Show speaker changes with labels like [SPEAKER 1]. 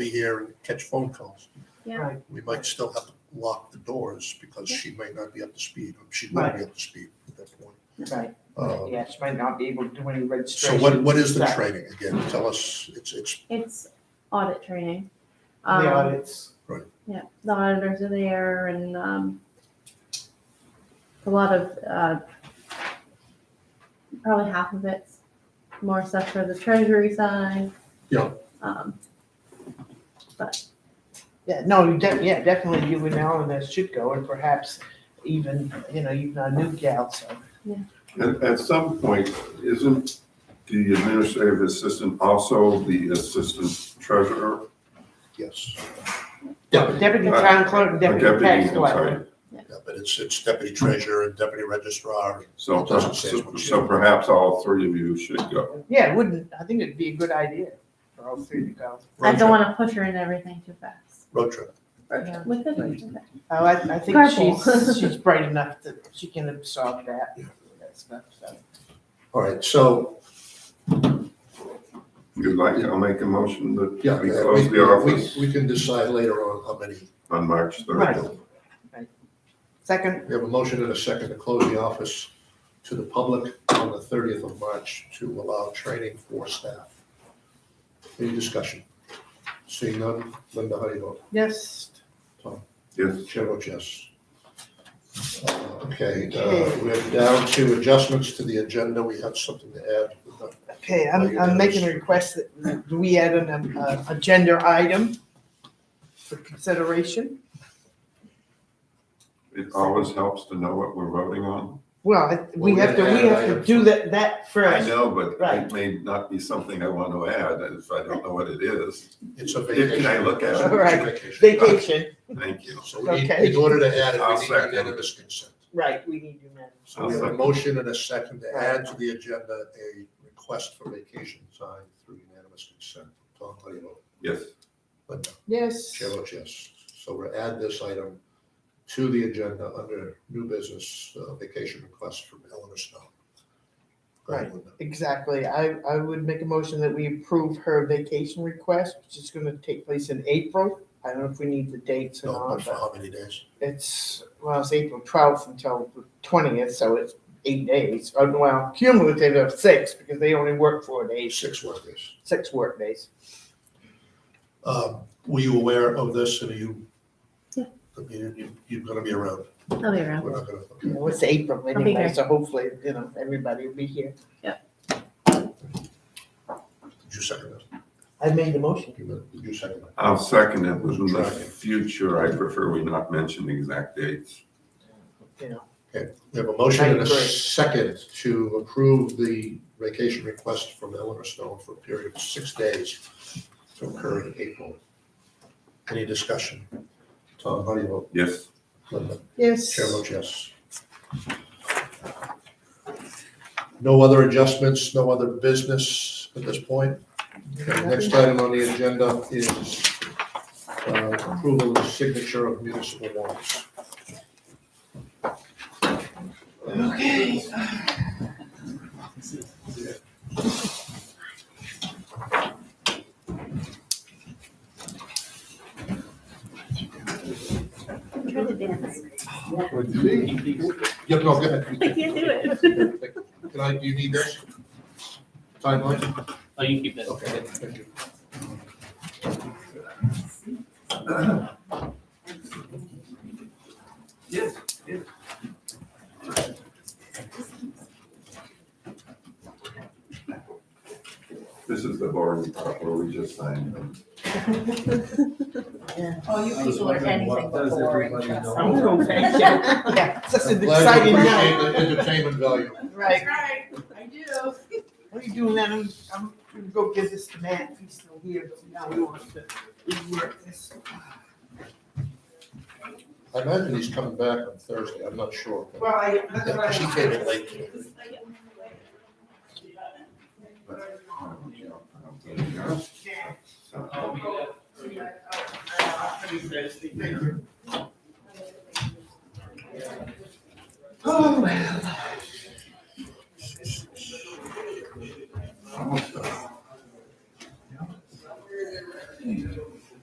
[SPEAKER 1] be here and catch phone calls.
[SPEAKER 2] Yeah.
[SPEAKER 1] We might still have to lock the doors because she may not be up to speed, or she will be up to speed at that point.
[SPEAKER 3] Right,
[SPEAKER 1] Uh,
[SPEAKER 3] yeah, she might not be able to do any
[SPEAKER 1] So
[SPEAKER 3] registration.
[SPEAKER 1] what, what is the
[SPEAKER 3] Right.
[SPEAKER 1] training again? Tell us, it's, it's,
[SPEAKER 2] It's audit training. Um,
[SPEAKER 4] The audits,
[SPEAKER 2] Yeah, the auditors are there and um, a lot of, uh, probably half of it's more stuff for the treasury side.
[SPEAKER 1] Yeah.
[SPEAKER 2] Um,
[SPEAKER 3] Yeah, no, you de- yeah, definitely you and Eleanor should go and perhaps even, you know, even a new gal, so.
[SPEAKER 5] At, at some point, isn't the administrative assistant also the assistant treasurer?
[SPEAKER 1] yes.
[SPEAKER 3] Deputy
[SPEAKER 1] Uh,
[SPEAKER 3] town clerk, and
[SPEAKER 5] Or
[SPEAKER 3] deputy tax
[SPEAKER 5] I'm
[SPEAKER 3] collector.
[SPEAKER 5] sorry.
[SPEAKER 1] Yeah, but it's, it's deputy treasurer and deputy registrar.
[SPEAKER 5] So,
[SPEAKER 1] It doesn't say
[SPEAKER 5] so-
[SPEAKER 1] what she-
[SPEAKER 5] so perhaps all three of you should go.
[SPEAKER 3] Yeah, it wouldn't, I think it'd be a good idea for all three to
[SPEAKER 2] I
[SPEAKER 3] go.
[SPEAKER 1] Road
[SPEAKER 2] don't
[SPEAKER 1] trip,
[SPEAKER 2] want to push her in everything too fast.
[SPEAKER 1] Road trip.
[SPEAKER 3] Yeah.
[SPEAKER 2] With it,
[SPEAKER 3] Right.
[SPEAKER 2] okay.
[SPEAKER 3] Oh, I, I think
[SPEAKER 2] Carpool.
[SPEAKER 3] she's, she's bright enough that she can absorb that, that stuff, so.
[SPEAKER 1] All right, so,
[SPEAKER 5] You'd like, I'll make a motion that
[SPEAKER 1] yeah,
[SPEAKER 5] we
[SPEAKER 1] we,
[SPEAKER 5] close the office
[SPEAKER 1] we, we can decide later on how many.
[SPEAKER 5] on March
[SPEAKER 3] Right.
[SPEAKER 5] third.
[SPEAKER 3] Second,
[SPEAKER 1] We have a motion and a second to close the office to the public on the thirtieth of March to allow training for staff. Any discussion? Seeing none, Linda, how do you vote?
[SPEAKER 3] yes,
[SPEAKER 5] Yes,
[SPEAKER 1] Chair votes yes. Uh, Okay, uh, we're down to adjustments to the agenda. We have something to add.
[SPEAKER 3] okay,
[SPEAKER 1] Oh, you
[SPEAKER 3] I'm, I'm
[SPEAKER 1] did.
[SPEAKER 3] making a request that we add an, um, uh, agenda item for consideration.
[SPEAKER 5] it always helps to know what we're voting on.
[SPEAKER 3] Well, it- we
[SPEAKER 1] Well,
[SPEAKER 3] have to,
[SPEAKER 1] we
[SPEAKER 3] we
[SPEAKER 1] had
[SPEAKER 3] have to
[SPEAKER 1] items.
[SPEAKER 3] do that, that
[SPEAKER 5] I
[SPEAKER 3] first.
[SPEAKER 5] know, but
[SPEAKER 3] Right.
[SPEAKER 5] it may not be something I want to add if I don't know what it is.
[SPEAKER 1] It's a
[SPEAKER 5] If-
[SPEAKER 1] vacation.
[SPEAKER 5] Can I look
[SPEAKER 1] It's a
[SPEAKER 5] at it?
[SPEAKER 3] All right.
[SPEAKER 1] vacation.
[SPEAKER 3] Vacation,
[SPEAKER 5] Thank you.
[SPEAKER 1] So we need,
[SPEAKER 3] Okay.
[SPEAKER 1] in order to add it,
[SPEAKER 5] I'll
[SPEAKER 1] we need
[SPEAKER 5] second.
[SPEAKER 1] unanimous consent.
[SPEAKER 3] right, we need you now.
[SPEAKER 1] So we have a motion and a second to add to the agenda a request for vacation time through unanimous consent. Tom, how do you vote?
[SPEAKER 5] Yes,
[SPEAKER 1] Linda?
[SPEAKER 3] Yes.
[SPEAKER 1] Chair votes yes. So we'll add this item to the agenda under new business uh, vacation request from Eleanor Snow. Go ahead, Linda.
[SPEAKER 3] Exactly. I, I would make a motion that we approve her vacation request, which is gonna take place in April. I don't know if we need the dates or
[SPEAKER 1] No, but
[SPEAKER 3] not,
[SPEAKER 1] for
[SPEAKER 3] but
[SPEAKER 1] how many days?
[SPEAKER 3] it's, well, it's April twelfth until the twentieth, so it's eight days. Oh, Well, cumulative of six, because they only work four days,
[SPEAKER 1] Six work days.
[SPEAKER 3] six work days.
[SPEAKER 1] Um, Were you aware of this and are you?
[SPEAKER 2] Yeah.
[SPEAKER 1] I mean, you, you're gonna be around.
[SPEAKER 2] I'll be around.
[SPEAKER 1] We're not gonna, okay.
[SPEAKER 3] Well, it's April
[SPEAKER 2] be
[SPEAKER 3] anyway,
[SPEAKER 2] here.
[SPEAKER 3] so hopefully, you know, everybody will be here.
[SPEAKER 1] Did you second that?
[SPEAKER 3] I made the motion.
[SPEAKER 1] You- Did you second that?
[SPEAKER 5] I'll second it, but in the
[SPEAKER 1] Try.
[SPEAKER 5] future, I prefer we not mention the exact dates.
[SPEAKER 1] We have a motion and
[SPEAKER 3] I
[SPEAKER 1] a
[SPEAKER 3] agree.
[SPEAKER 1] second to approve the vacation request from Eleanor Stone for a period of six days to occur in April. Any discussion? Tom, how do you vote?
[SPEAKER 5] Yes,
[SPEAKER 1] Linda?
[SPEAKER 3] Yes.
[SPEAKER 1] Chair votes yes. No other adjustments, no other business at this point? Okay, Next item on the agenda is uh, approval of the signature of municipal warrants.
[SPEAKER 3] Okay.
[SPEAKER 2] I'm trying to dance.
[SPEAKER 1] Yeah, no, go ahead.
[SPEAKER 2] I can't do it.
[SPEAKER 1] Can I, do you need this? Timeline?
[SPEAKER 6] Oh, you keep that.
[SPEAKER 1] Okay, thank you.
[SPEAKER 5] this is the boring part where we just signed them.
[SPEAKER 7] Oh, you people are anything but boring, trust me.
[SPEAKER 3] I'm so thank you. Yeah, it's just an
[SPEAKER 1] I'm glad you
[SPEAKER 3] exciting night.
[SPEAKER 1] appreciate the entertainment value.
[SPEAKER 3] Right.
[SPEAKER 7] right, I do.
[SPEAKER 3] What are you doing, Adam? I'm gonna go give this to Matt, he's still here, but now he wants to rework this.
[SPEAKER 1] I imagine he's coming back on Thursday, I'm not sure.
[SPEAKER 3] Well, I, that's
[SPEAKER 1] Yeah,
[SPEAKER 3] what
[SPEAKER 1] She
[SPEAKER 3] I.
[SPEAKER 1] came in late today.
[SPEAKER 5] So,
[SPEAKER 3] Thank you.